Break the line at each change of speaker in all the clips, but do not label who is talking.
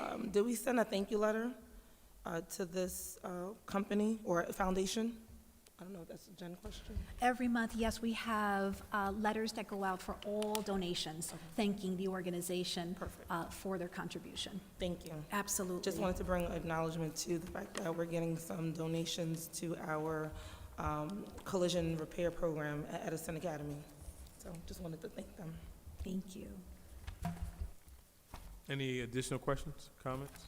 um, did we send a thank you letter uh, to this uh, company or foundation? I don't know, if that's a Jen question.
Every month, yes, we have uh, letters that go out for all donations, thanking the organization
Perfect.
uh, for their contribution.
Thank you.
Absolutely.
Just wanted to bring acknowledgement to the fact that we're getting some donations to our um, collision repair program at Edison Academy. So just wanted to thank them.
Thank you.
Any additional questions, comments?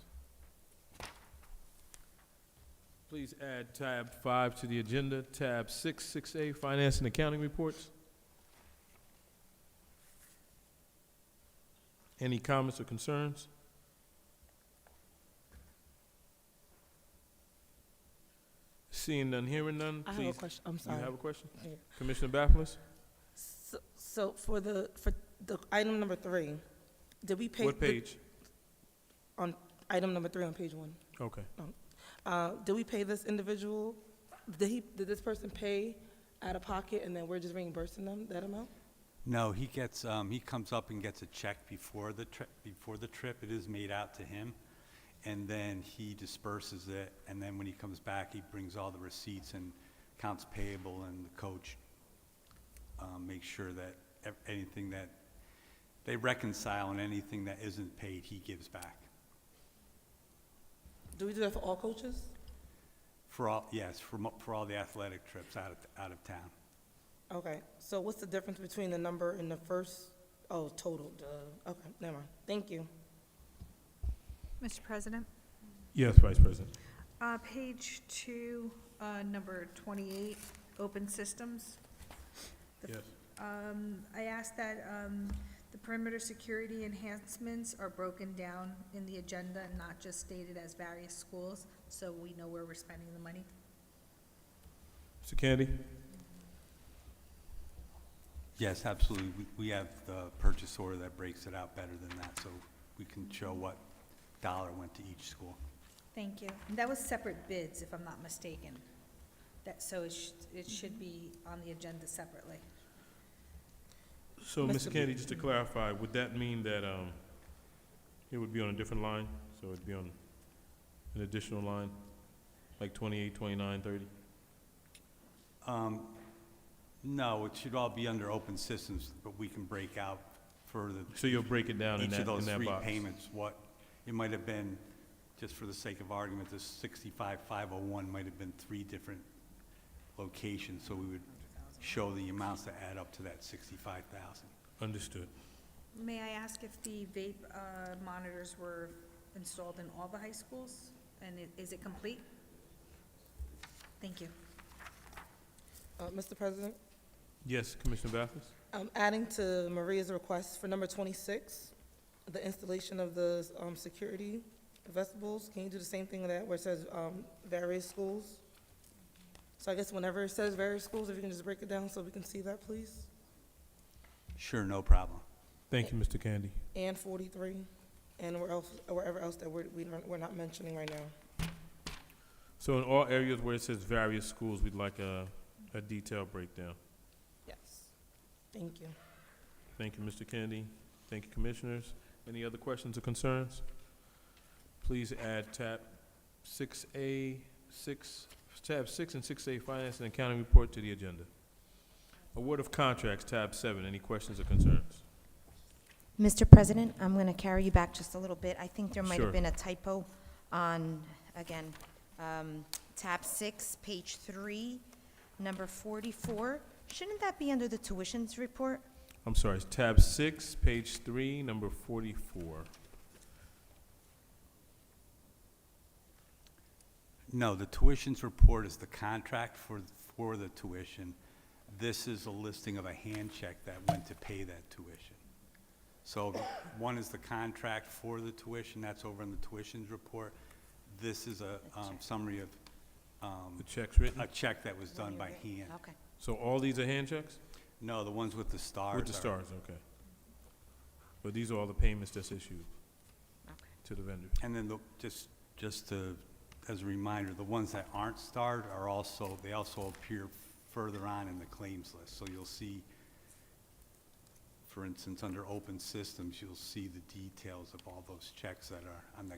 Please add tab five to the agenda, tab six, six A, finance and accounting reports. Any comments or concerns? Seeing none, hearing none,
I have a
please.
question, I'm
You
sorry.
have a question?
Yeah.
Commissioner Baffles,
So- So for the, for the item number three, did we pay?
what
the-
page?
Item number three on page one.
Okay.
Uh, Did we pay this individual? Did he, did this person pay out of pocket and then we're just reimbursing them that amount?
No, he gets, um, he comes up and gets a check before the trip, before the trip, it is made out to him, and then he disperses it, and then when he comes back, he brings all the receipts and accounts payable, and the coach, um, makes sure that ev- anything that, they reconcile, and anything that isn't paid, he gives back.
Do we do that for all coaches?
For all, yes, for, mo- for all the athletic trips out of, out of town.
Okay, so what's the difference between the number and the first, oh, total, duh, okay, never mind, thank you.
Mr. President,
Yes, Vice President.
uh, page two, uh, number 28, open systems. The-
Yes.
Um, I asked that um, the perimeter security enhancements are broken down in the agenda and not just stated as various schools, so we know where we're spending the money.
Mr. Kennedy?
Yes, absolutely. We- We have the purchase order that breaks it out better than that, so we can show what dollar went to each school.
Thank you. And That was separate bids, if I'm not mistaken. That, so it should, it should be on the agenda separately.
So,
Mr.
Mr. Kennedy, just to clarify, would that mean that um, it would be on a different line? So it'd be on an additional line, like 28, 29, 30?
Um, No, it should all be under open systems, but we can break out further.
So you'll break it down in
Each
that,
of
in that box?
those three payments, what, it might have been, just for the sake of argument, the 65,501 might have been three different locations, so we would show the amounts that add up to that 65,000.
Understood.
May I ask if the vape uh, monitors were installed in all the high schools? And i- is it complete? Thank you.
Uh, Mr. President,
Yes, Commissioner Bathurst?
um, adding to Maria's request for number twenty-six, the installation of the, um, security vestibules, can you do the same thing with that, where it says, um, various schools? So I guess whenever it says various schools, if you can just break it down so we can see that, please,
Sure, no problem.
Thank you, Mr. Kennedy.
and forty-three, and where else, wherever else that we're, we don't- we're not mentioning right now.
So in all areas where it says various schools, we'd like a, a detailed breakdown.
Yes, thank you.
Thank you, Mr. Kennedy. Thank you, Commissioners. Any other questions or concerns? Please add tab six A, six, tab six and six A, Finance and Accounting Report to the agenda. Award of Contracts, tab seven. Any questions or concerns?
Mr. President, I'm going to carry you back just a little bit. I think there might
Sure.
have been a typo on, again, um, tab six, page three, number 44. Shouldn't that be under the tuitions report?
I'm sorry, it's tab six, page three, number forty-four.
No, the tuitions report is the contract for, for the tuition. This is a listing of a hand check that went to pay that tuition. So one is the contract for the tuition, that's over in the tuitions report. This is a um, summary of um,
The check's written.
a check that was done by hand.
Okay.
So all these are hand checks?
No, the ones with the stars.
With the
are-
stars, okay. But these are all the payments that's issued to the vendors.
And then the, just, just to, as a reminder, the ones that aren't starred are also, they also appear further on in the claims list. So you'll see, for instance, under open systems, you'll see the details of all those checks that are on the